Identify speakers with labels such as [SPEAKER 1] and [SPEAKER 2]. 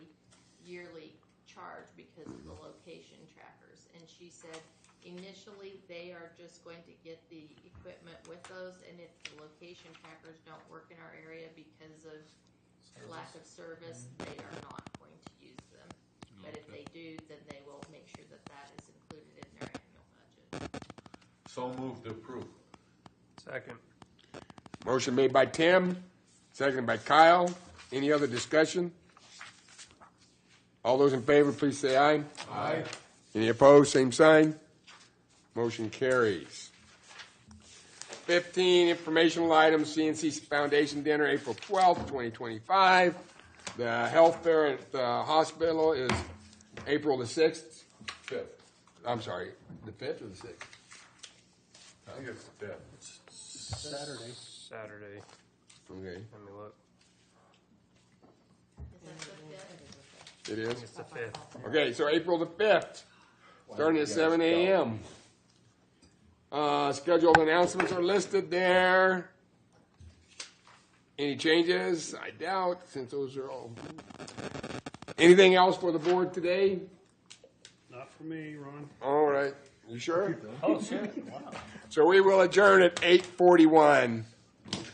[SPEAKER 1] because of the location trackers. And she said initially they are just going to get the equipment with those and if the location trackers don't work in our area because of lack of service, they are not going to use them. But if they do, then they will make sure that that is included in their annual budget.
[SPEAKER 2] So moved to approve.
[SPEAKER 3] Second.
[SPEAKER 4] Motion made by Tim, seconded by Kyle. Any other discussion? All those in favor, please say aye.
[SPEAKER 2] Aye.
[SPEAKER 4] Any opposed, same sign. Motion carries. Fifteen, informational items, CNC Foundation Dinner, April twelfth, twenty twenty-five. The health fair at the hospital is April the sixth,
[SPEAKER 2] Fifth.
[SPEAKER 4] I'm sorry, the fifth or the sixth?
[SPEAKER 2] I think it's fifth.
[SPEAKER 3] Saturday. Saturday.
[SPEAKER 4] Okay,
[SPEAKER 3] Let me look.
[SPEAKER 1] Is that the fifth?
[SPEAKER 4] it is?
[SPEAKER 3] It's the fifth.
[SPEAKER 4] Okay, so April the fifth, starting at seven AM. Uh, scheduled announcements are listed there. Any changes? I doubt, since those are all. Anything else for the board today?
[SPEAKER 5] Not for me, Ron.
[SPEAKER 4] All right, you sure?
[SPEAKER 2] Oh, shit.
[SPEAKER 4] So we will adjourn at eight forty-one.